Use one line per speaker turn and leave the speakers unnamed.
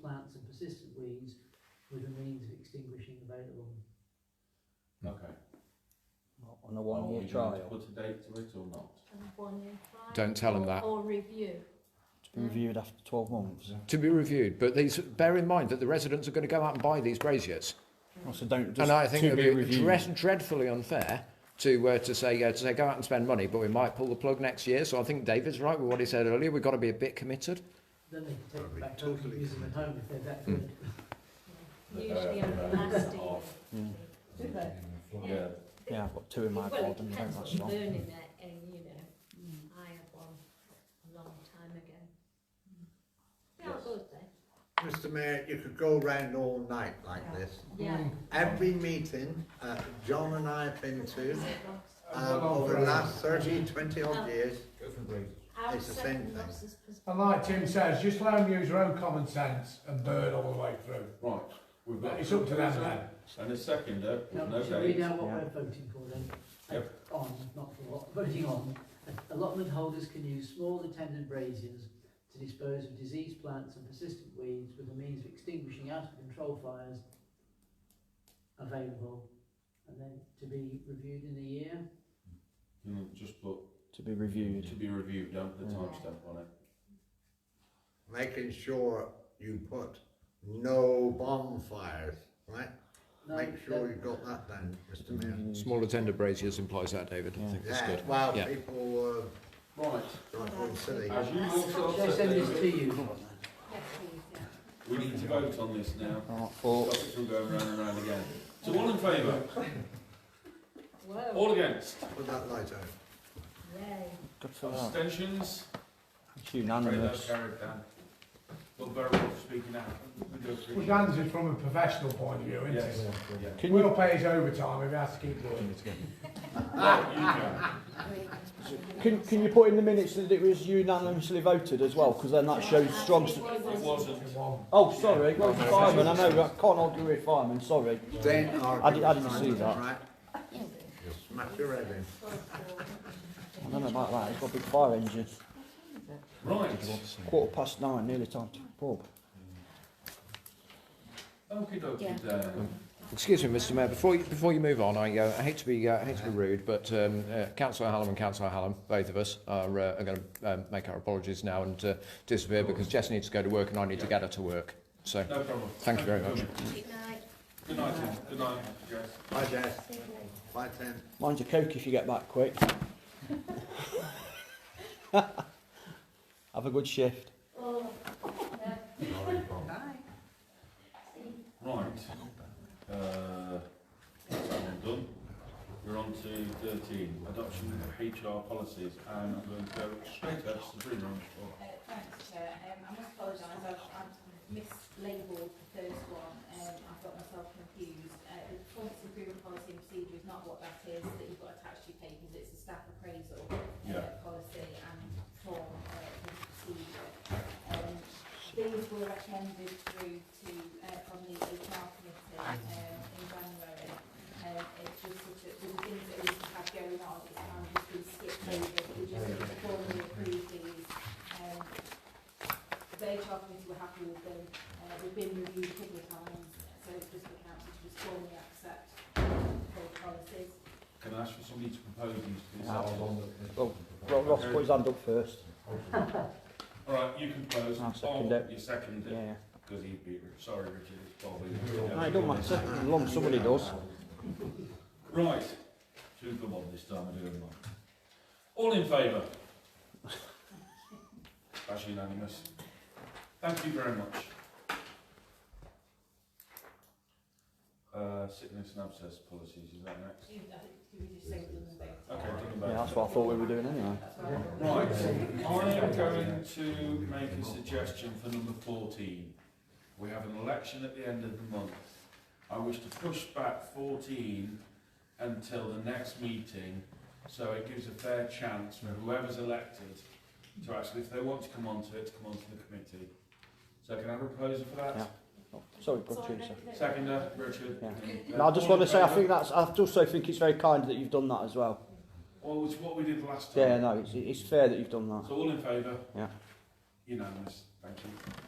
plants and persistent weeds with a means of extinguishing available.
Okay.
on a
Are we
one-year
going to
trial
Put a date to it or not?
Don't tell them
or,
that.
Or review.
to be reviewed after 12 months.
to be reviewed. But these, bear in mind that the residents are going to go out and buy these braziers,
Oh, so don't just
and I think
to
it
be
would be
reviewed.
dread, dreadfully unfair to uh, to say uh, to say go out and spend money, but we might pull the plug next year. So I think David's right with what he said earlier. We've got to be a bit committed.
Then they can take
That'd
them
be
back home and
totally Hmm.
use them at home if they're that good.
Usually
Uh,
on the
uh,
last day.
off.
Mm.
Do they?
Yeah.
Yeah, I've got two in my
well, it
garden. Don't
depends what
last
you're
long.
burning at, and you know, I had one a long time ago. Yeah,
Yes.
good then.
Mr Mayor, you could go round all night like this.
Yeah.
Mm. Every meeting uh, John and I have been to um, over the last 30, 20 odd years.
I would
It's the
second
same thing.
Ross's pers-
And like Tim says, just let them use their own common sense and burn all the way through.
Right. We've got.
It's up to them then.
And a seconder
Now,
with no
should we read
date.
out what
Yeah.
we're voting for then? Uh,
Yep.
On, not for what, voting on. Allotment holders can use small attendant braziers to dispose of diseased plants and persistent weeds with a means of extinguishing out of control fires available and then to be reviewed in a year.
Mm, Just put,
To be reviewed.
to be reviewed, don't put a
Yeah.
timestamp on it.
Making sure you put no bonfires, right?
No,
Make sure
that-
you got that down, Mr Mayor.
Smaller tender braziers implies that, David. I
Yeah.
think that's
Yeah,
good.
well,
Yeah.
people
Right.
uh, are going silly.
As you also
Shall I
said,
send this to
David,
you?
yes, please, yeah.
we need to vote on this now.
Oh,
Stop
oh.
it from going round and round again. So all in favour?
Whoa,
All against?
Put that light out.
yay.
Good for that.
Abstentions?
It's
Great, that's
unanimous.
carried, Dan. Well, very well for speaking out. We do appreciate
Well,
it.
Dan's is from a professional point of view, isn't
Yes.
it?
Yeah.
Can you
We'll pay his overtime if he has to keep working.
Right, you go.
can, can you put in the minutes that it was unanimously voted as well? Because then that shows strong. s-
It wasn't.
Oh, sorry. Well, fireman. I know. I can't argue with fireman. Sorry.
Then
I did- I didn't see that.
Right? You smash your head in.
I don't know about that. It's got a big fire engine.
Right.
Quarter past nine. Nearly time to pub.
Okie dokie, Dan.
Excuse me, Mr. Mayor. Before you, before you move on, I, uh, I hate to be uh, I hate to be rude, but um, uh, Councillor Hallam and Councillor Hallam, both of us, are, uh, are going to um, make our apologies now and uh, disappear because Jess needs to go to work and I need to get her to work. So
No problem.
thank you very much.
Good night.
Good night, Tim. Good night, guys.
Bye, Jess. Bye, Tim.
Mind your coke if you get back quick. Have a good shift.
Oh, yeah.
Sorry, Bob.
Right. Uh, that's that one done. We're on to 13, adoption of HR policies. And I'm going to go straight up to Sabrina on the floor.
Thanks, Chair. Um, I must apologise, I've, I've mislabelled the first one, um, I've got myself confused. Uh, the performance improvement policy and procedure is not what that is that you've got attached to your papers, it's a staff appraisal uh,
Yeah.
policy and form uh, for the procedure. Um, these were recommended through to, uh, from the HR committee um, in January. Um, it's just such a, the things that we had going on, it's kind of just been skipped over, we just formally approved these um, the HR committee were happy with them. Uh, they've been reviewed a couple of times, so it's just the council to just formally accept those policies.
Can I ask for somebody to propose these to the
Yeah,
secretary?
Well, Ro- Ross, put his hand up first.
All right, you can propose.
I'll second
Bob,
it.
You second
Yeah,
it,
yeah.
because he'd be, sorry, Richard, it's probably.
No, it don't matter. As long as somebody does.
Right, two good one this time, I do them all. All in favour? That's unanimous. Thank you very much. Uh, sickness and abscess policies, is that next?
You, I think, you just say them and vote.
Okay, done
Yeah,
about.
that's what I thought we were doing anyway.
That's what I thought.
Right, I am going to make a suggestion for number fourteen. We have an election at the end of the month. I wish to push back fourteen until the next meeting, so it gives a fair chance for whoever's elected to actually, if they want to come onto it, to come onto the committee. So can I have a proposal for
Yeah.
that?
Oh, Sorry, good
Sorry,
Teresa.
no, no.
Seconder, Richard?
Yeah.
and, uh,
No, I just
all in
want to say I
favour?
think that's. I also think it's very kind that you've done that as well.
Well, it's what we did last time.
Yeah, no, it's, it's fair that you've done that.
So all in favour?
Yeah.
Unanimous, thank you.